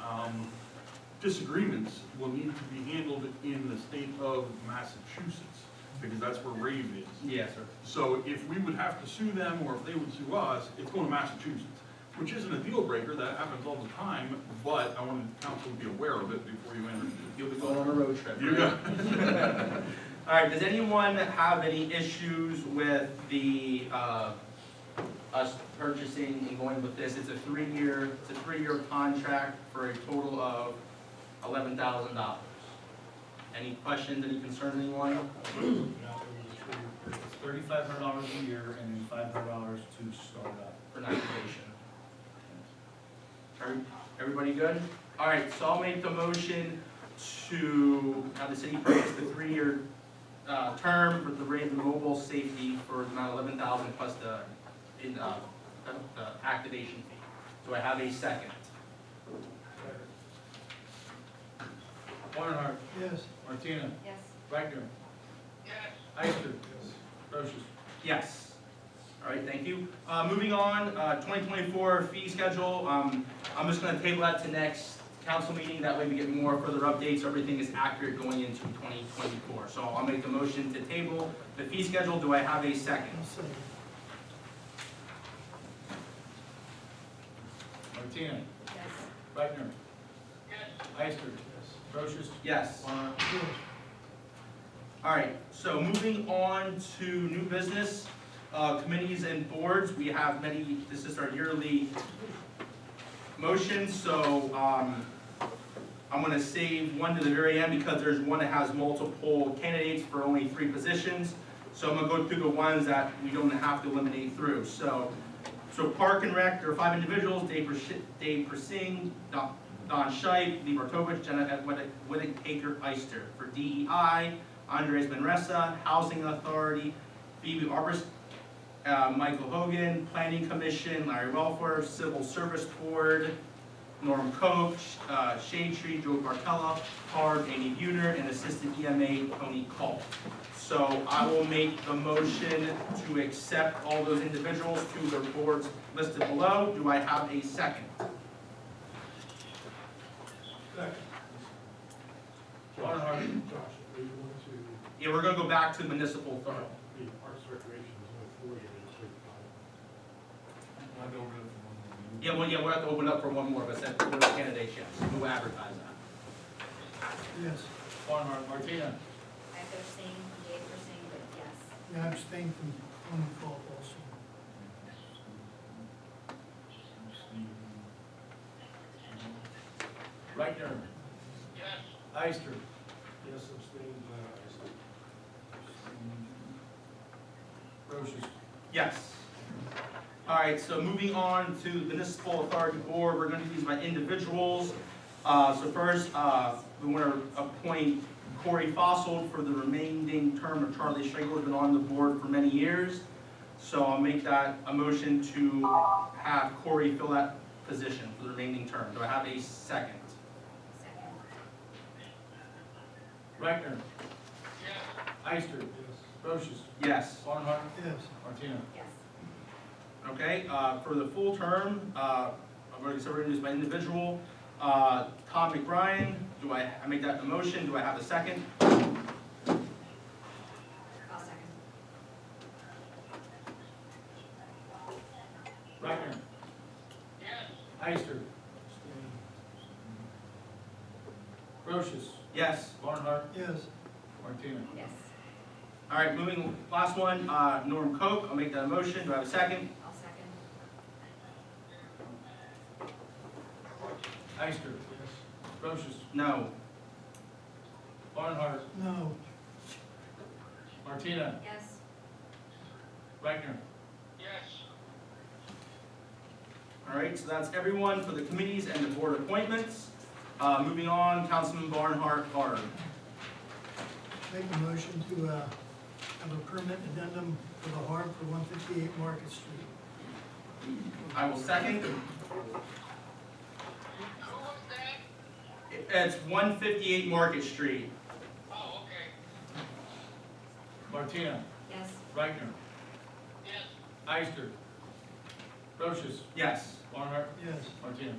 um, disagreements will need to be handled in the state of Massachusetts, because that's where rave is. Yes, sir. So if we would have to sue them, or if they would sue us, it's going to Massachusetts, which isn't a deal breaker, that happens all the time, but I wanted council to be aware of it before you enter. You'll be going on a road trip. You got, All right, does anyone have any issues with the, uh, us purchasing and going with this? It's a three-year, it's a three-year contract for a total of eleven thousand dollars. Any questions, any concerns, anyone? It's thirty-five hundred dollars a year and then five hundred dollars to start up. for an application. Every- Everybody good? All right, so I'll make the motion to have the city purchase the three-year uh, term for the Raven Mobile Safety for the amount of eleven thousand plus the, in, uh, the- the activation fee. Do I have a second? Barnhart. Yes. Martina. Yes. Wagner. Yes. Ister. Yes. Brochus. Yes. All right, thank you. Uh, moving on, uh, twenty twenty-four fee schedule, um, I'm just gonna table that to next council meeting, that way we get more further updates, everything is accurate going into twenty twenty-four. So I'll make the motion to table the fee schedule, do I have a second? Martina. Yes. Wagner. Yes. Ister. Yes. Brochus. Yes. Barnhart. All right, so moving on to new business, uh, committees and boards, we have many, this is our yearly motion, so, um, I'm gonna save one to the very end because there's one that has multiple candidates for only three positions. So I'm gonna go through the ones that we don't have to eliminate through, so, so Park and Rec, there are five individuals, Dave Persh- Dave Persing, Don Don Scheib, Lee Bartovich, Jenna Whittick, Taker, Eister. For DEI, Andres Manresa, Housing Authority, Phoebe Arborist, uh, Michael Hogan, Planning Commission, Larry Welfare, Civil Service Board, Norm Coach, uh, Shade Tree, Joe Bartella, Harb, Amy Buhner, and Assistant EMA Tony Call. So I will make the motion to accept all those individuals to their boards listed below. Do I have a second? Barnhart. Josh, are you going to, the Yeah, we're gonna go back to municipal authority. Parks Recreation is only forty, and it's thirty-five. Yeah, well, yeah, we'll have to open up for one more, but since there are candidates, yes, we'll advertise that. Yes, Barnhart. Martina. I have abstained from Dave for saying, but yes. and I abstain from phone call also. Wagner. Yes. Ister. Yes, abstained, uh, I said. Brochus. Yes. All right, so moving on to municipal authority board, we're gonna do these by individuals. Uh, so first, uh, we wanna appoint Corey Fossil for the remaining term of Charlie Schlegel, who's been on the board for many years. So I'll make that a motion to have Corey fill that position for the remaining term. Do I have a second? Second. Wagner. Yes. Ister. Yes. Brochus. Yes. Barnhart. Yes, Martina. Yes. Okay, uh, for the full term, uh, I'm going to introduce my individual, uh, Tom McBrien, do I, I make that a motion, do I have a second? I'll second. Wagner. Yes. Ister. Brochus. Yes, Barnhart. yes, Martina. Yes. all right, moving, last one, uh, Norm Coke, I'll make that a motion, do I have a second? I'll second. Ister. Brochus. No, Barnhart. no, Martina. Yes. Wagner. all right, so that's everyone for the committees and the board appointments. Uh, moving on, Councilman Barnhart Harb. make a motion to, uh, have a permit addendum for the harm for one fifty-eight Market Street. I will second. It's one fifty-eight Market Street. Martina. Yes. Wagner. Yes. Ister. Brochus. Yes. Barnhart. Yes, Martina.